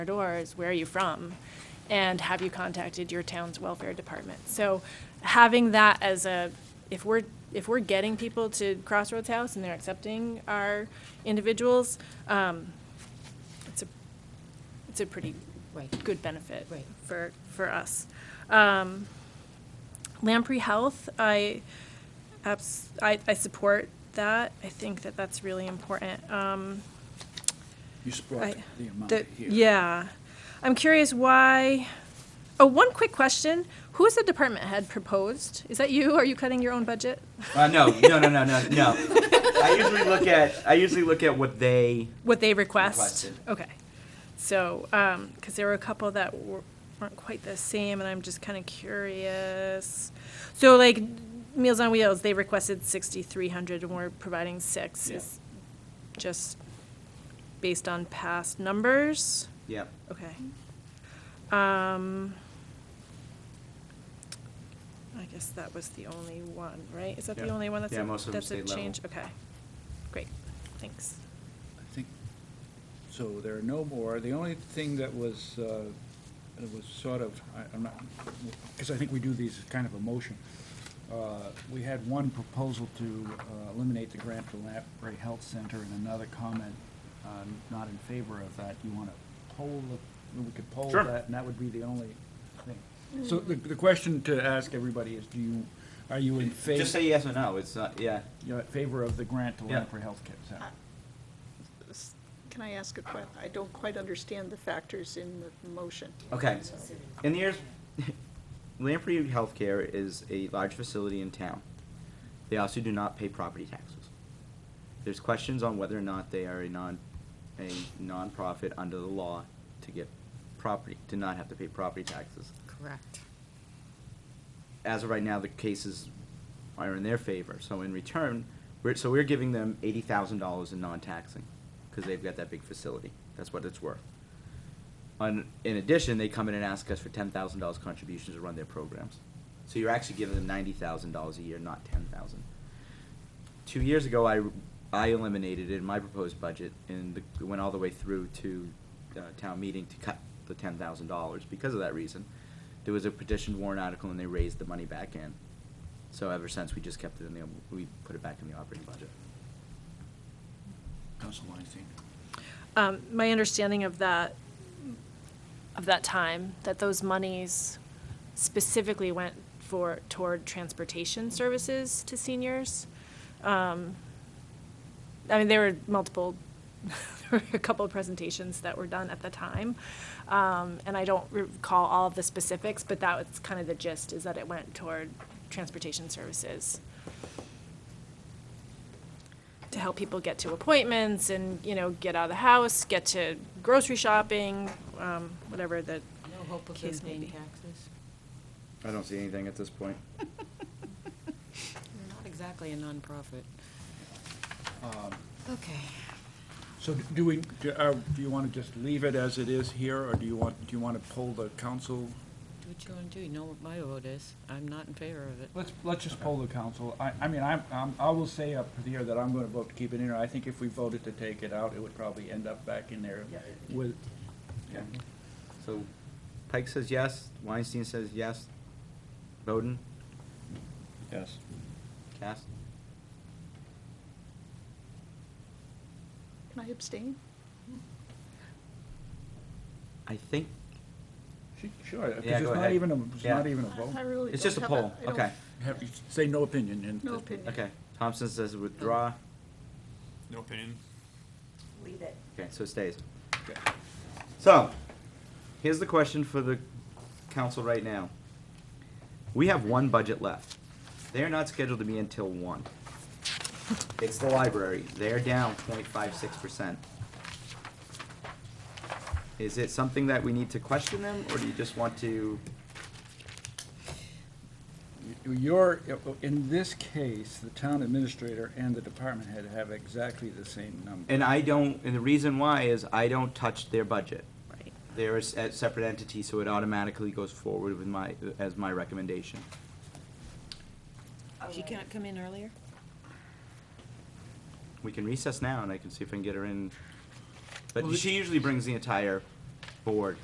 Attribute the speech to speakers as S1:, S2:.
S1: our doors, where are you from? And have you contacted your town's welfare department? So having that as a, if we're, if we're getting people to Crossroads House and they're accepting our individuals, um, it's a, it's a pretty
S2: Right.
S1: good benefit
S2: Right.
S1: for, for us. Um, Lamprey Health, I, abs- I, I support that. I think that that's really important. Um,
S3: You just brought
S1: I-
S3: the amount
S1: the-
S3: here.
S1: Yeah. I'm curious why, oh, one quick question. Who is the department head proposed? Is that you? Are you cutting your own budget?
S4: Uh, no, no, no, no, no, no. I usually look at I usually look at what they
S1: What they request?
S4: Requested.
S1: Okay. So, um, cause there were a couple that were- weren't quite the same and I'm just kinda curious. So like Meals on Wheels, they requested sixty-three hundred and we're providing six.
S4: Yeah.
S1: Is Just based on past numbers?
S4: Yep.
S1: Okay. Um, I guess that was the only one, right? Is that the
S4: Yeah.
S1: only one that's
S4: Yeah,
S1: a,
S4: most of them
S1: that's a
S4: state level.
S1: change? Okay, great, thanks.
S3: I think, so there are no more. The only thing that was, uh, that was sort of, I- I'm not, because I think we do these as kind of a motion. Uh, We had one proposal to uh, eliminate the grant for Lamprey Health Center and another comment uh, not in favor of that. You want to poll, the- we could poll
S4: Sure.
S3: that, and that would be the only thing. So the, the question to ask everybody is, do you, are you in favor?
S4: Just say yes or no. It's not. Yeah.
S3: You're in favor of the grant to
S4: Yeah.
S3: Lamprey Health Center?
S5: S- Can I ask a que, I don't quite understand the factors in the motion.
S4: Okay. In the years, Lamprey Healthcare is a large facility in town. They also do not pay property taxes. There's questions on whether or not they are a non, a nonprofit under the law to get property, to not have to pay property taxes.
S2: Correct.
S4: as of right now, the cases are in their favor. So in return, we're, so we're giving them eighty thousand dollars in non-taxing, because they've got that big facility. That's what it's worth. On, in addition, they come in and ask us for ten thousand dollars contributions to run their programs. So you're actually giving them ninety thousand dollars a year, not ten thousand. Two years ago, I, I eliminated it in my proposed budget, and the- it went all the way through to, uh, town meeting to cut the ten thousand dollars because of that reason. There was a petition warrant article, and they raised the money back in. So ever since, we just kept it in the, we put it back in the operating budget.
S3: Council Weinstein.
S1: Um, my understanding of that, of that time, that those monies specifically went for, toward transportation services to seniors. Um, I mean, there were multiple, there were a couple of presentations that were done at the time. Um, and I don't recall all of the specifics, but that was kind of the gist, is that it went toward transportation services to help people get to appointments and, you know, get out of the house, get to grocery shopping, um, whatever the
S2: No hope of them
S1: case may
S2: paying
S1: be.
S2: taxes?
S4: I don't see anything at this point.
S2: They're not exactly a nonprofit.
S3: Um,
S2: Okay.
S3: So d- do we, do uh, do you want to just leave it as it is here, or do you want, do you want to poll the council?
S2: Do what you want to do. You know what my vote is. I'm not in favor of it.
S3: Let's, let's just poll the council. I, I mean, I'm, I'm- I will say up here that I'm going to vote to keep it in. there. I think if we voted to take it out, it would probably end up back in there with,
S4: Okay. So Pike says yes, Weinstein says yes, Bowden,
S3: yes.
S4: Cass?
S5: Can I abstain?
S4: I think,
S3: She- Sure, because
S4: Yeah,
S3: it's
S4: go
S3: not
S4: ahead.
S3: even, a it's
S4: Yeah.
S3: not even a
S5: I- I
S3: vote.
S5: really
S4: it's
S5: don't
S4: just a
S5: have
S4: poll,
S5: I don't-
S4: okay,
S3: Have you- Say no opinion and.
S5: No opinion.
S4: okay. Thompson says withdraw,
S5: Oh.
S6: No opinion.
S7: Leave it.
S4: okay, so it stays.
S3: Okay.
S4: So, here's the question for the council right now. We have one budget left. They are not scheduled to be until one. It's the library. They are down 0.56 percent. Is it something that we need to question them, or do you just want to?
S3: Your, in this case, the town administrator and the department head have exactly the same number.
S4: And I don't, and the reason why is I don't touch their budget.
S1: Right.
S4: They're a s- a separate entity, so it automatically goes forward with my, as my recommendation.
S2: She cannot come in earlier?
S4: We can recess now, and I can see if I can get her in. But
S3: Well,
S4: she usually brings the entire board